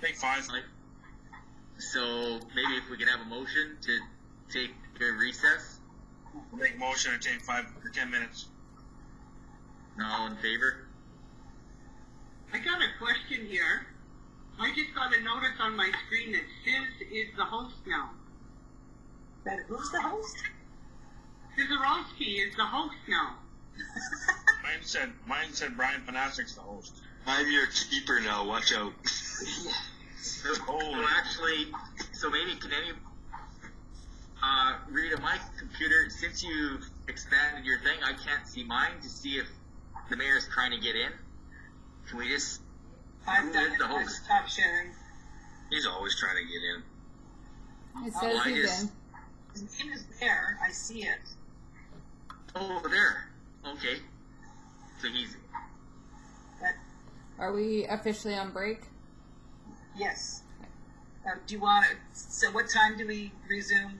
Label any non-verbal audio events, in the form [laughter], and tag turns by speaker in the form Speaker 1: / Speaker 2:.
Speaker 1: Take five.
Speaker 2: Like, So maybe if we can have a motion to take a recess,
Speaker 1: Make a motion to take five or ten minutes.
Speaker 2: all in favor?
Speaker 3: I got a question here. I just got a notice on my screen that Sis is the host now.
Speaker 4: That who's the host?
Speaker 3: Sizerowski is the host now.
Speaker 1: Mine said mine said Brian Panasic's the host.
Speaker 5: I'm your keeper now. Watch
Speaker 2: [laughs]
Speaker 5: out.
Speaker 2: So
Speaker 1: Holy.
Speaker 2: so actually, so maybe can any, uh, Rita, my computer, since you've expanded your thing, I can't see mine to see if the mayor's trying to get in. Can we just,
Speaker 4: I've done
Speaker 2: is the
Speaker 4: it. I
Speaker 2: host?
Speaker 4: stopped sharing.
Speaker 2: he's always trying to get in.
Speaker 6: It
Speaker 4: Oh,
Speaker 6: says
Speaker 2: I
Speaker 6: he's
Speaker 2: just-
Speaker 6: in.
Speaker 4: His name is there. I see it.
Speaker 2: Oh, there, okay. So he's,
Speaker 4: But
Speaker 6: Are we officially on break?
Speaker 4: Um, yes. Uh, do you want it? So what time do we resume?